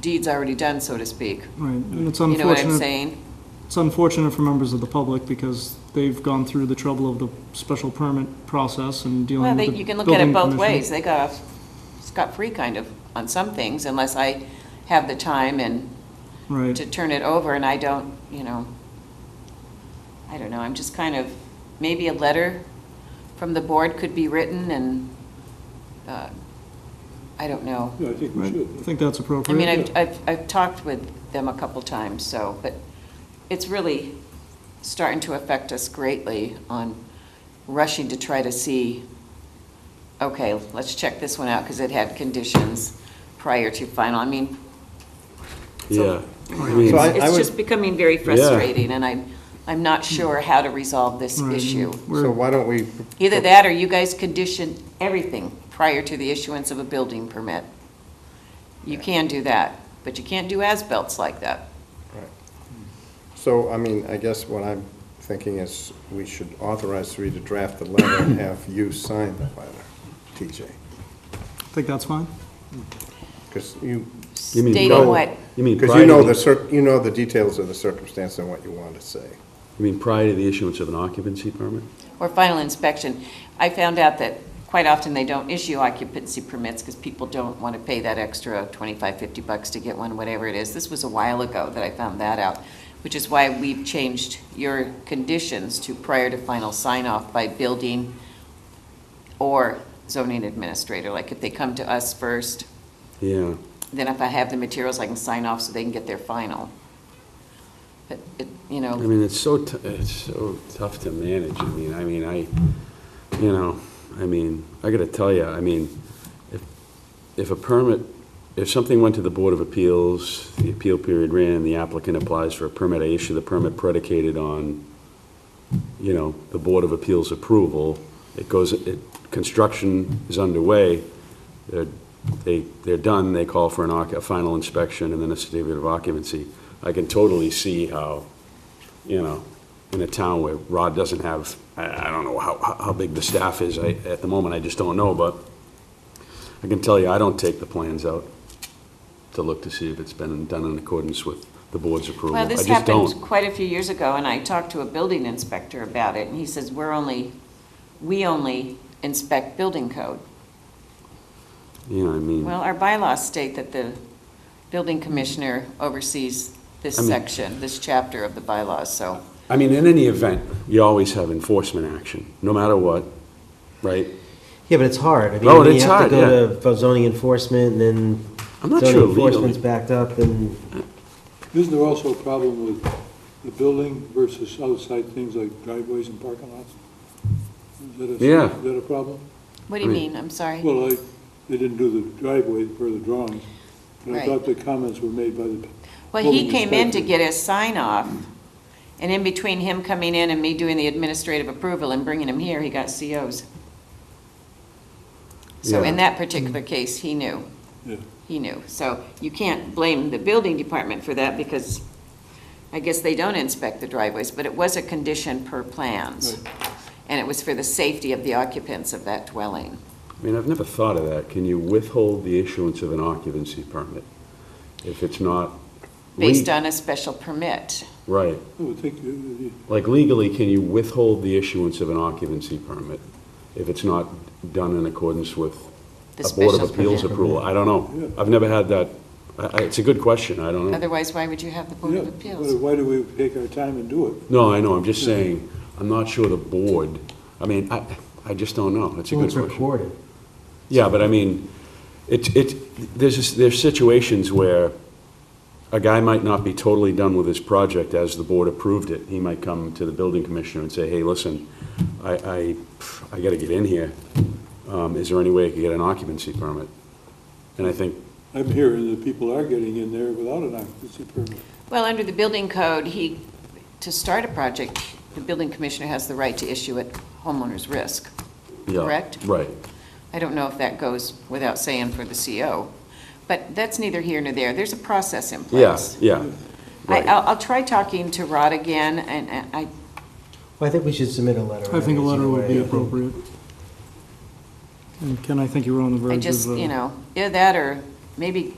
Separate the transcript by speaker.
Speaker 1: deed's already done, so to speak.
Speaker 2: Right, and it's
Speaker 1: You know what I'm
Speaker 2: unfortunate,
Speaker 1: saying?
Speaker 2: it's unfortunate for members of the public because they've gone through the trouble of the special permit process and
Speaker 1: Well,
Speaker 2: dealing
Speaker 1: they-
Speaker 2: with the
Speaker 1: you can look at it
Speaker 2: building
Speaker 1: both
Speaker 2: commission.
Speaker 1: ways. They got off scot-free kind of on some things, unless I have the time and
Speaker 2: Right,
Speaker 1: to turn it over, and I don't, you know, I don't know, I'm just kind of, maybe a letter from the board could be written and, uh, I don't know.
Speaker 3: Yeah, I think we
Speaker 2: right.
Speaker 3: should.
Speaker 2: I think
Speaker 1: I
Speaker 2: that's
Speaker 1: mean,
Speaker 2: appropriate.
Speaker 1: I've, I've, I've talked with them a couple times, so, but it's really starting to affect us greatly on rushing to try to see, okay, let's check this one out, because it had conditions prior to final, I mean,
Speaker 4: Yeah. I mean,
Speaker 3: oh, So I- I
Speaker 1: it's
Speaker 3: would-
Speaker 1: just becoming very frustrating, and I'm, I'm not sure how to resolve this
Speaker 2: Right,
Speaker 1: issue.
Speaker 2: and
Speaker 3: So
Speaker 2: we're-
Speaker 3: why don't we,
Speaker 1: Either that, or you guys condition everything prior to the issuance of a building permit. You can do that, but you can't do as-belts like that.
Speaker 3: so, I mean, I guess what I'm thinking is we should authorize three to draft the letter and have you sign the letter, TJ.
Speaker 2: I think that's fine.
Speaker 3: Because you,
Speaker 4: you mean
Speaker 1: Stating
Speaker 4: prior-
Speaker 1: what,
Speaker 4: You mean
Speaker 3: because
Speaker 4: prior
Speaker 3: you
Speaker 4: to
Speaker 3: know the
Speaker 4: the,
Speaker 3: cir, you know the details of the circumstance and what you want to say.
Speaker 4: you mean prior to the issuance of an occupancy permit?
Speaker 1: or final inspection. I found out that quite often they don't issue occupancy permits because people don't want to pay that extra 25, 50 bucks to get one, whatever it is. This was a while ago that I found that out, which is why we've changed your conditions to prior to final sign-off by building or zoning administrator. Like if they come to us first,
Speaker 4: Yeah,
Speaker 1: then if I have the materials, I can sign off so they can get their final. But, it- you
Speaker 4: I
Speaker 1: know,
Speaker 4: mean, it's so, t- it's so tough to manage, I mean, I mean, I, you know, I mean, I gotta tell you, I mean, if, if a permit, if something went to the Board of Appeals, the appeal period ran, the applicant applies for a permit, I issue the permit predicated on, you know, the Board of Appeals approval, it goes, it, construction is underway, they're, they, they're done, they call for an, oc- a final inspection and then a certificate of occupancy. I can totally see how, you know, in a town where Rod doesn't have, I, I don't know how, how- how big the staff is, I, at the moment, I just don't know, but I can tell you, I don't take the plans out to look to see if it's been done in accordance with the board's approval.
Speaker 1: well,
Speaker 4: I
Speaker 1: this
Speaker 4: just
Speaker 1: happened
Speaker 4: don't.
Speaker 1: quite a few years ago, and I talked to a building inspector about it, and he says, we're only, we only inspect building code.
Speaker 4: You know, I mean.
Speaker 1: Well, our bylaws state that the building commissioner oversees this
Speaker 4: I mean-
Speaker 1: section, this chapter of the bylaws, so.
Speaker 4: I mean, in any event, you always have enforcement action, no matter what, right?
Speaker 5: Yeah, but it's hard. I mean,
Speaker 4: Oh,
Speaker 5: when
Speaker 4: it's
Speaker 5: you have to
Speaker 4: hard,
Speaker 5: go to zoning enforcement, and then
Speaker 4: I'm not
Speaker 5: zoning
Speaker 4: sure
Speaker 5: enforcement's
Speaker 4: legally.
Speaker 5: backed up, and
Speaker 6: Isn't there also a problem with the building versus outside things like driveways and parking lots? Is that a-
Speaker 4: Yeah.
Speaker 6: Is that a problem?
Speaker 1: What do you
Speaker 4: I mean-
Speaker 1: mean? I'm sorry.
Speaker 6: Well, I, they didn't do the driveway for the drawings, but I
Speaker 1: Right.
Speaker 6: thought the comments were made by the,
Speaker 1: Well, he
Speaker 6: building
Speaker 1: came in to
Speaker 6: inspector.
Speaker 1: get his sign off, and in between him coming in and me doing the administrative approval and bringing him here, he got COs. So in that particular case, he knew.
Speaker 6: yeah.
Speaker 1: He knew. So you can't blame the building department for that because I guess they don't inspect the driveways, but it was a condition per plans. And it was for the safety of the occupants of that dwelling.
Speaker 4: I mean, I've never thought of that. Can you withhold the issuance of an occupancy permit if it's not?
Speaker 1: Based
Speaker 4: le-
Speaker 1: on a special permit.
Speaker 4: Right.
Speaker 6: I would think, uh,
Speaker 4: Like legally, can you withhold the issuance of an occupancy permit if it's not done in accordance with
Speaker 1: The
Speaker 4: a Board
Speaker 1: special
Speaker 4: of Appeals
Speaker 1: permit.
Speaker 4: approval? I don't know. I've never had that. I, I- it's a good question. I don't know.
Speaker 1: Otherwise, why would you have the
Speaker 6: yeah,
Speaker 1: Board of
Speaker 6: why-
Speaker 1: Appeals?
Speaker 6: why do we take our time and do it?
Speaker 4: No, I know, I'm just saying, I'm not sure the board, I mean, I, I just don't know, it's a
Speaker 5: well,
Speaker 4: good
Speaker 5: it's
Speaker 4: question.
Speaker 5: recorded.
Speaker 4: Yeah, but I mean, it, it, there's, just- there's situations where a guy might not be totally done with his project as the board approved it. He might come to the building commissioner and say, hey, listen, I, I, I gotta get in here. Um, is there any way I could get an occupancy permit? And I think,
Speaker 6: I'm hearing that people are getting in there without an occupancy permit.
Speaker 1: Well, under the building code, he, to start a project, the building commissioner has the right to issue at homeowner's risk.
Speaker 4: yeah.
Speaker 1: Correct.
Speaker 4: Right.
Speaker 1: I don't know if that goes without saying for the CO, but that's neither here nor there. There's a process in
Speaker 4: Yeah,
Speaker 1: place.
Speaker 4: yeah,
Speaker 1: I,
Speaker 4: right.
Speaker 1: I'll, I'll try talking to Rod again, and and I,
Speaker 5: Well, I think we should submit a letter.
Speaker 2: I think a
Speaker 5: anyways,
Speaker 2: letter
Speaker 5: either
Speaker 2: would
Speaker 5: way.
Speaker 2: be appropriate. And Ken, I think you were on the verge of.
Speaker 1: I just,
Speaker 2: uh,
Speaker 1: you know, either that or maybe